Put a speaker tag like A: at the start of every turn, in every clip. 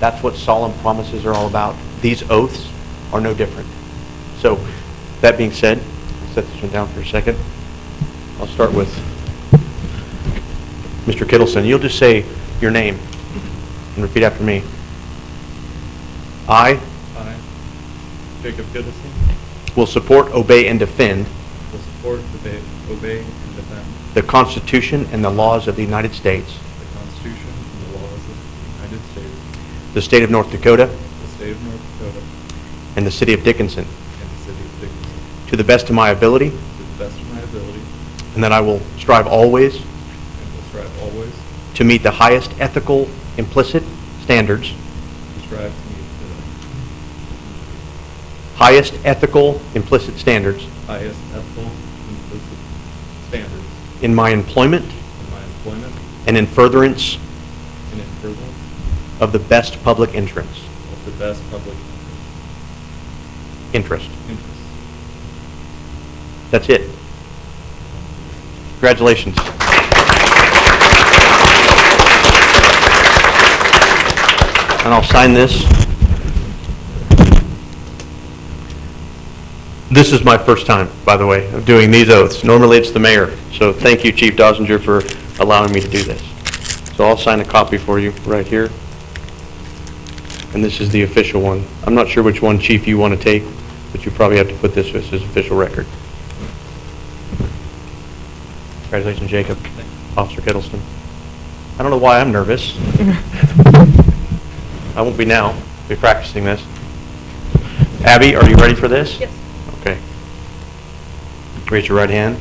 A: That's what solemn promises are all about. These oaths are no different. So, that being said, set this one down for a second. I'll start with Mr. Kittleson. You'll just say your name and repeat after me. I
B: I, Jacob Goodison,
A: will support, obey, and defend
B: will support, debate, obey, and defend
A: the Constitution and the laws of the United States,
B: the Constitution and the laws of the United States,
A: the state of North Dakota,
B: the state of North Dakota,
A: and the city of Dickinson,
B: and the city of Dickinson,
A: to the best of my ability,
B: to the best of my ability,
A: and that I will strive always
B: and will strive always
A: to meet the highest ethical implicit standards,
B: to strive to meet
A: highest ethical implicit standards
B: the highest ethical and implicit standards
A: in my employment
B: in my employment
A: and in furtherance
B: and in furtherance
A: of the best public entrance,
B: of the best public
A: interest.
B: interest.
A: That's it. Congratulations. And I'll sign this. This is my first time, by the way, of doing these oaths. Normally, it's the mayor. So thank you, Chief Dosinger, for allowing me to do this. So I'll sign a copy for you right here. And this is the official one. I'm not sure which one, Chief, you want to take, but you probably have to put this as his official record. Congratulations, Jacob. Officer Kittleston. I don't know why I'm nervous. I won't be now. Be practicing this. Abby, are you ready for this?
C: Yes.
A: Okay. Raise your right hand.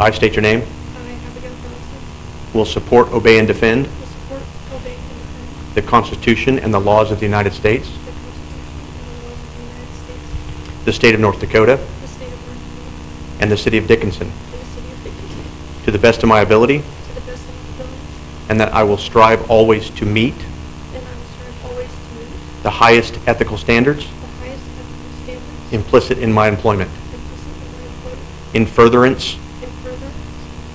A: I state your name.
C: I, Abigail Dawson,
A: Will support, obey, and defend
C: will support, obey, and defend
A: the Constitution and the laws of the United States,
C: the Constitution and the laws of the United States,
A: the state of North Dakota,
C: the state of North Dakota,
A: and the city of Dickinson,
C: and the city of Dickinson,
A: to the best of my ability,
C: to the best of my ability,
A: and that I will strive always to meet
C: and I will strive always to meet
A: the highest ethical standards
C: the highest ethical standards
A: implicit in my employment,
C: implicit in my employment,
A: in furtherance
C: and further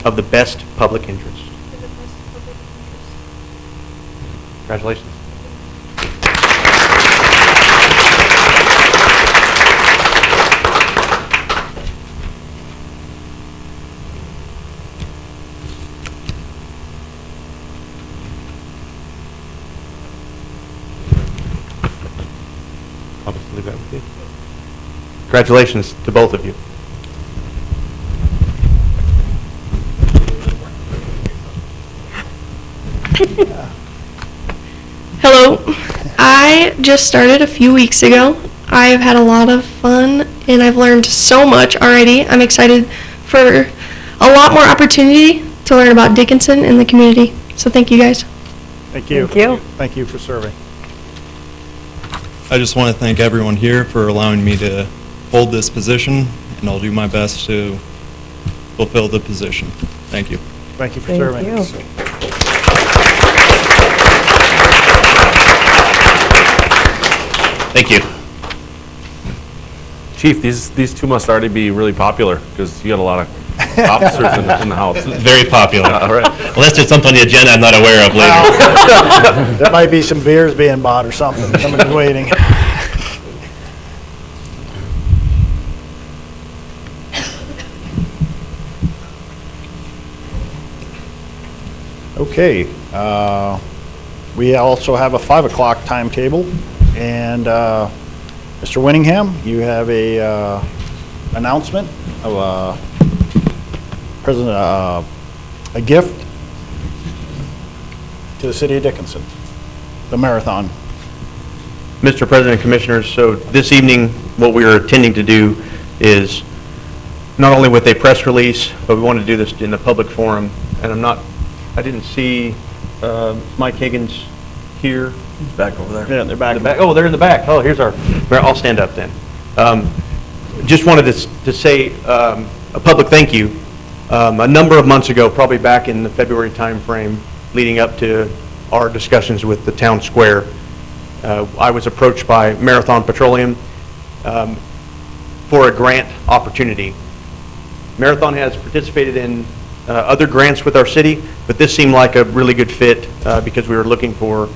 A: of the best public interest.
C: to the best of public interest.
A: Congratulations. I'll just leave that with you. Congratulations to both of you.
C: Hello. I just started a few weeks ago. I've had a lot of fun and I've learned so much already. I'm excited for a lot more opportunity to learn about Dickinson and the community. So thank you guys.
D: Thank you.
E: Thank you.
D: Thank you for serving.
B: I just want to thank everyone here for allowing me to hold this position, and I'll do my best to fulfill the position. Thank you.
D: Thank you for
E: Thank
D: serving.
E: you.
F: Thank you. Chief, these, these two must already be really popular, because you got a lot of officers in the, in the house.
G: Very popular.
F: All right.
G: Unless there's something on the agenda I'm not aware of later.
D: There might be some beers being bought or something. Somebody's waiting. Okay, uh, we also have a 5 o'clock timetable, and uh, Mr. Winningham, you have a uh, announcement of uh, present- uh, a gift to the city of Dickinson, the marathon.
A: Mr. President and Commissioners, so this evening, what we are intending to do is not only with a press release, but we want to do this in a public forum, and I'm not, I didn't see uh, Mike Higgins here.
B: Back over there.
D: Yeah, they're back.
A: In the back. Oh, they're in the back. Oh, here's our, I'll stand up then. Um, Just wanted to s- to say um, a public thank you. Um, A number of months ago, probably back in the February timeframe, leading up to our discussions with the town square, uh, I was approached by Marathon Petroleum um, for a grant opportunity. Marathon has participated in uh, other grants with our city, but this seemed like a really good fit uh, because we were looking for